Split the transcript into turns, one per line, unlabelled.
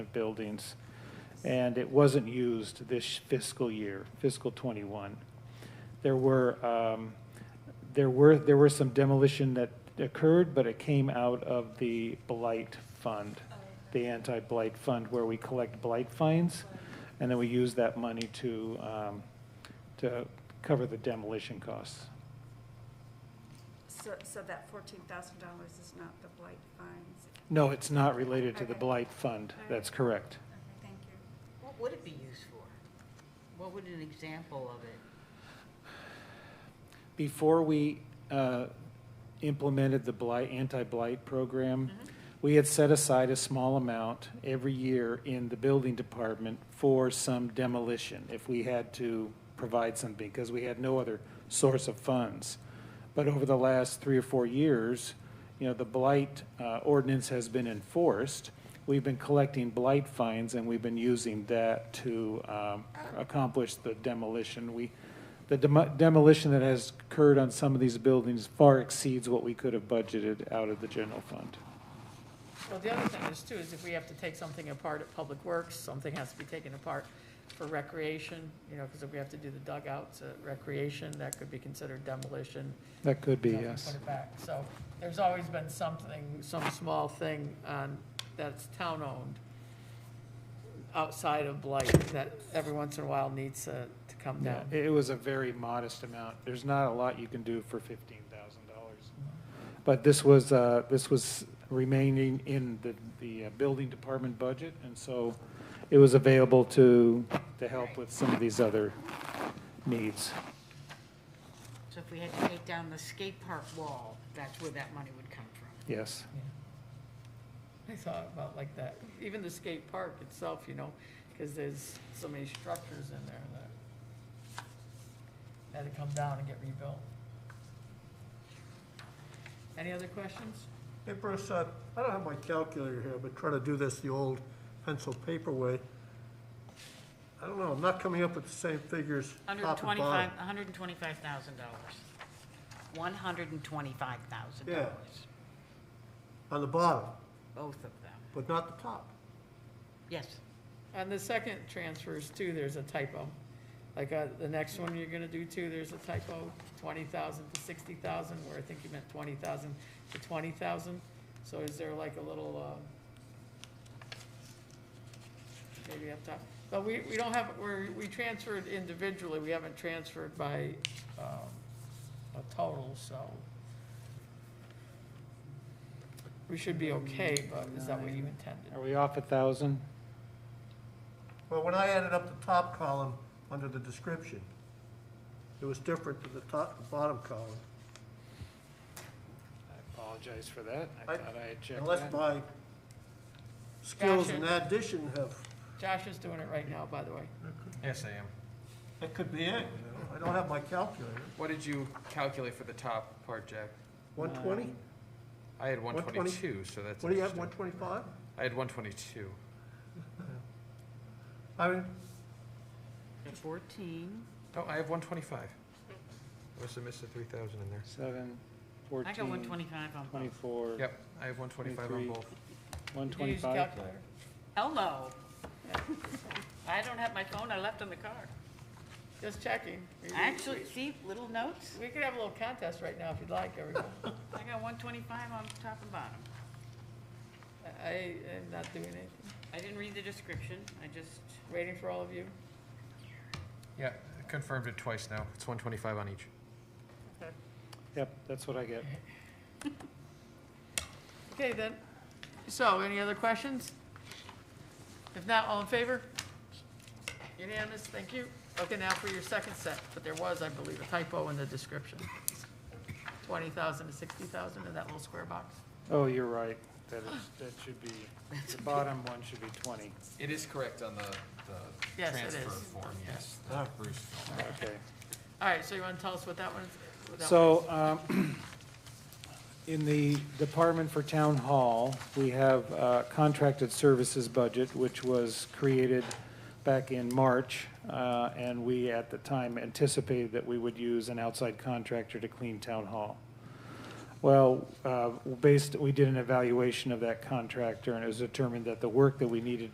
of buildings, and it wasn't used this fiscal year, fiscal '21. There were, um, there were, there were some demolition that occurred, but it came out of the blight fund,
Oh,
the anti-blight fund, where we collect blight fines, and then we use that money to, um, to cover the demolition costs.
So, so that fourteen thousand dollars is not the blight fines?
No, it's not related to the
Okay.
blight fund, that's correct.
Okay, thank you.
What would it be used for? What would an example of it?
Before we uh, implemented the blight, anti-blight program, we had set aside a small amount every year in the building department for some demolition, if we had to provide something, because we had no other source of funds. But over the last three or four years, you know, the blight uh, ordinance has been enforced. We've been collecting blight fines, and we've been using that to um, accomplish the demolition. We, the demo- demolition that has occurred on some of these buildings far exceeds what we could have budgeted out of the general fund.
Well, the other thing is too, is if we have to take something apart at Public Works, something has to be taken apart for recreation, you know, because if we have to do the dugouts at recreation, that could be considered demolition.
That could be,
you know, if we
yes.
Put it back, so there's always been something, some small thing on, that's town-owned outside of blight that every once in a while needs uh, to come
Yeah,
down.
It was a very modest amount. There's not a lot you can do for fifteen thousand dollars. But this was, uh, this was remaining in the, the uh, building department budget, and so it was available to, to help with some of these other needs.
So if we had to take down the skate park wall, that's where that money would come from.
Yes,
I thought about like that, even the skate park itself, you know, because there's so many structures in there that had to come down and get rebuilt. Any other questions?
Hey, Bruce, uh, I don't have my calculator here, but trying to do this the old pencil paper way. I don't know, I'm not coming up with the same figures top and
Hundred
bottom.
twenty-five, hundred and twenty-five thousand dollars. One hundred and twenty-five thousand
Yeah.
dollars,
On the bottom,
both of them.
but not the top.
Yes,
On the second transfers too, there's a typo. Like, uh, the next one you're gonna do too, there's a typo, twenty thousand to sixty thousand, where I think you meant twenty thousand to twenty thousand. So is there like a little, uh, maybe up top? But we, we don't have, we're, we transferred individually, we haven't transferred by, um, a total, so. We should be okay, but is that what you intended?
are we off a thousand?
Well, when I added up the top column under the description, it was different than the top, the bottom column.
I apologize for that, I
I-
thought I had checked
Unless
that.
my skills
Gotcha.
in addition have,
Josh is doing it right now, by the way.
Yes, I am.
that could be it, you know, I don't have my calculator.
What did you calculate for the top part, Jack?
One twenty?
I had
120.
122, so that's
What do you have,
interesting.
one twenty-five?
I had 122.
I mean,
fourteen.
Oh, I have 125. I must have missed the 3,000 in there.
Seven,
I got
fourteen,
one twenty-five on both.
twenty-four,
Yep, I have 125 on
23.
both.
one
Did you use a
twenty-five.
calculator?
Hello. I don't have my phone, I left in the car.
Just checking. We- we-
Actually, see, little notes,
We could have a little contest right now if you'd like, everyone.
I got one twenty-five on top and bottom.
I I am not doing anything.
I didn't read the description, I just,
Waiting for all of you.
Yeah, I confirmed it twice now. It's 125 on each.
Yep, that's what I get.
Okay, then. So, any other questions? If not, all in favor? Unanimous, thank you. Okay, now for your second set, but there was, I believe, a typo in the description. 20,000 to 60,000 in that little square box.
Oh, you're right. That is, that should be, the bottom one should be twenty.
It is correct on the, the
Yes, it transfer is.
form, yes.
Okay.
All right, so you want to tell us what that one is? what that one
So, um, in the Department for Town Hall, we have uh, contracted services budget, which was created back in March, uh, and we, at the time, anticipated that we would use an outside contractor to clean Town Hall. Well, uh, based, we did an evaluation of that contractor, and it was determined that the work that we needed